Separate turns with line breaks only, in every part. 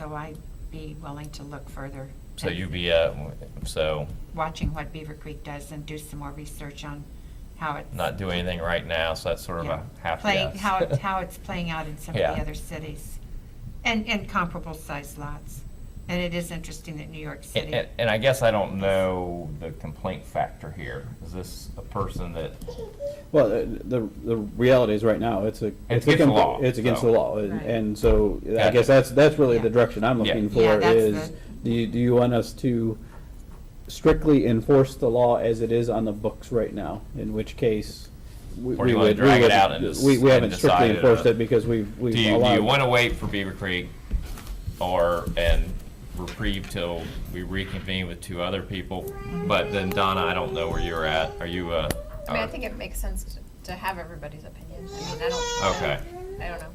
so I'd be willing to look further.
So
and
you'd be, uh, so
Watching what Beaver Creek does and do some more research on how it's.
not do anything right now, so that's sort of a
yeah,
half
playing-
yes.
How, it- how it's playing out in some of
Yeah.
the other cities and, and comparable sized lots. And it is interesting that New York
And,
City.
and- and I guess I don't know the complaint factor here. Is this a person that,
Well, the, the, the reality is right now, it's a.
It's
a
against the
compa-
law,
It's against
so.
the law, and,
Right.
and so I
Gotcha.
guess that's, that's really
Yeah.
the direction
Yeah.
I'm looking
Yeah,
for
that's
is,
the-
do you, do you want us to strictly enforce the law as it is on the books right now? In which case, we
Or do
we
you wanna
would, we
drag it
would,
out and just-
we, we
and
haven't strictly
decide it,
enforced
uh,
it because we've,
do
we've
you, do you
allowed-
want to wait for Beaver Creek or, and reprieve till we reconvene with two other people? But then Donna, I don't know where you're at. Are you, uh?
I mean, I
are-
think it makes sense to- to have everybody's opinion. I mean, I don't.
Okay.
I don't know.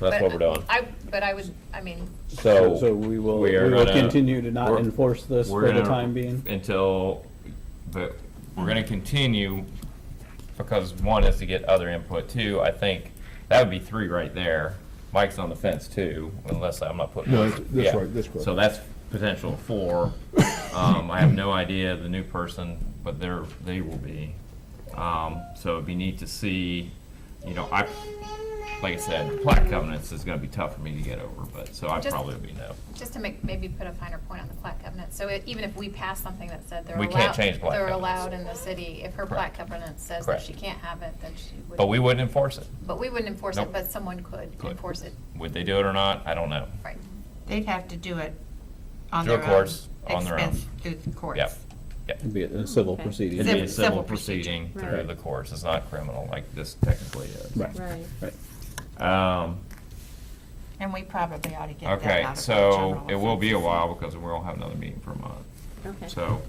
That's
But
what we're doing.
I, but I would, I mean,
So.
So we will,
we
we
are
will
gonna-
continue to not
we're-
enforce this
we're
for the
gonna-
time being.
Until, but we're gonna continue, because one is to get other input, two, I think, that would be three right there. Mike's on the fence too, unless I'm not putting.
No, that's- that's
Yeah.
right, that's correct.
So that's potential four. Um, I have no idea the new person, but they're, they will be. Um, so it'd be neat to see, you know, I, like I said, plaque covenants is gonna be tough for me to get over, but, so I
Just-
probably would be no.
just to make, maybe put a finer point on the plaque covenant. So it- even if we pass something that said they're allowed.
We can't change plaque
They're
covenants.
allowed in the city, if her
Correct.
plaque covenant says that
Correct.
she can't have it, then she would.
But we wouldn't enforce it.
But we wouldn't enforce
Nope.
it, but someone could
Could.
enforce it,
Would they do it or not? I don't know.
right?
They'd have to do it on
Through
their own.
courts, on their own.
Expense through the courts.
Yep. Yep.
It'd be a civil
Okay.
proceeding.
It'd be a
Civil- civil
civil
proceeding.
proceeding through
Right.
the courts. It's not criminal like this technically is.
Right,
Right.
right.
Um,
And we probably ought to get that
okay,
out of our
so
general.
it will be a
offenses.
while because we won't have another meeting for a month.
Okay.
So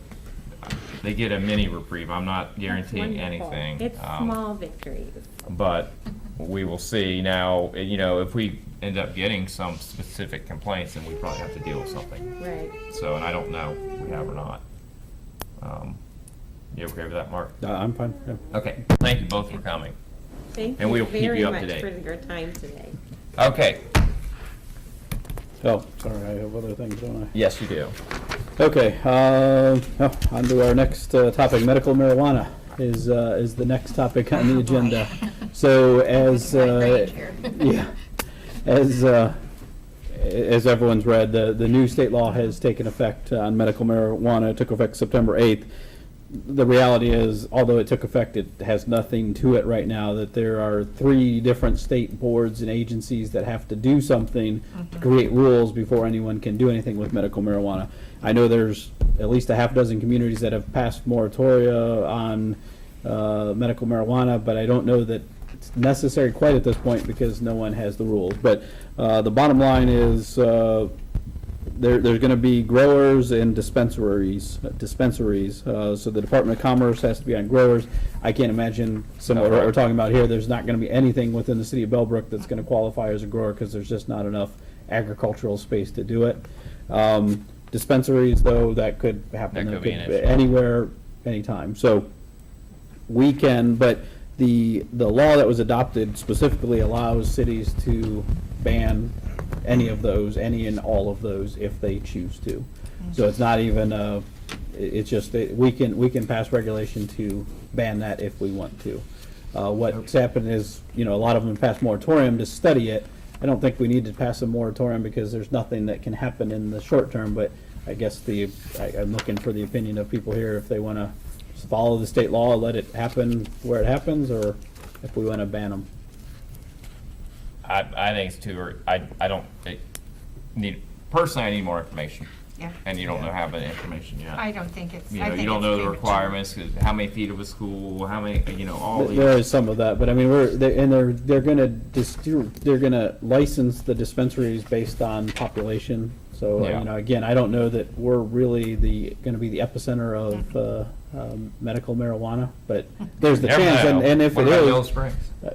uh, they get a mini reprieve. I'm not
That's
guaranteeing
wonderful.
anything.
It's
um,
small victories.
But we will see now, eh, you know, if we end up getting some specific complaints, then we probably have to deal with something.
Right.
So, and I don't know if we have or not. Um, You okay with that, Mark?
Uh, I'm fine, yeah.
Okay, thank you both for coming.
Thank
And we'll
you
keep you
very
up to
much
date.
for your time today.
Okay,
Oh, sorry, I have other things, don't I?
yes, you do.
Okay, um, oh, on to our next uh, topic, medical marijuana is, uh, is the next topic on the agenda. So as,
Wide range
uh,
here.
yeah, as, uh, a- as everyone's read, the, the new state law has taken effect on medical marijuana. It took effect September 8th. The reality is, although it took effect, it has nothing to it right now, that there are three different state boards and agencies that have to do something to create rules before anyone can do anything with medical marijuana. I know there's at least a half dozen communities that have passed moratoria on uh, medical marijuana, but I don't know that it's necessary quite at this point because no one has the rules. But uh, the bottom line is, uh, there, there's gonna be growers and dispensaries, dispensaries, uh, so the Department of Commerce has to be on growers. I can't imagine similar to what we're talking about here, there's not gonna be anything within the city of Bellbrook that's gonna qualify as a grower, because there's just not enough agricultural space to do it. Um, dispensaries, though, that could happen.
That could be an issue.
Anywhere, anytime, so we can, but the, the law that was adopted specifically allows cities to ban any of those, any and all of those, if they choose to. So it's not even, uh, i- it's just, that we can, we can pass regulation to ban that if we want to. Uh, what's happened is, you know, a lot of them passed moratorium to study it. I don't think we need to pass a moratorium because there's nothing that can happen in the short term, but I guess the, I, I'm looking for the opinion of people here if they wanna follow the state law, let it happen where it happens, or if we want to ban them.
I, I think it's too, ear- I, I don't, I need, personally, I need more information.
Yeah.
And you don't know, have that information yet.
I don't think it's,
You
I
know,
think
you don't
it's
know the
premature.
requirements, 'cause how many feet of a school, how many, you know, all these.
There is some of that, but I mean, we're, they- and they're, they're gonna dis, they're gonna license the dispensaries based on population. So,
Yeah.
you know, again, I don't know that we're really the, gonna be the epicenter of, uh, um, medical marijuana, but there's the
Never
chance, and,
know.
and if
What
it
about Yellow
is,
Springs?
uh,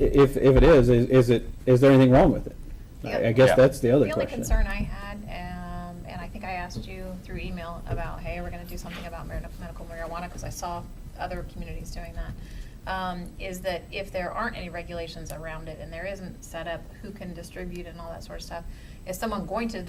if, if it is, is, is it, is there anything wrong with it? I I guess
Yeah.
that's the other
The only
question.
concern I had, um, and I think I asked you through email about, hey, we're gonna do something about mar- medical marijuana, because I saw other communities doing that, um, is that if there aren't any regulations around it and there isn't set up who can distribute and all that sort of stuff, is someone going to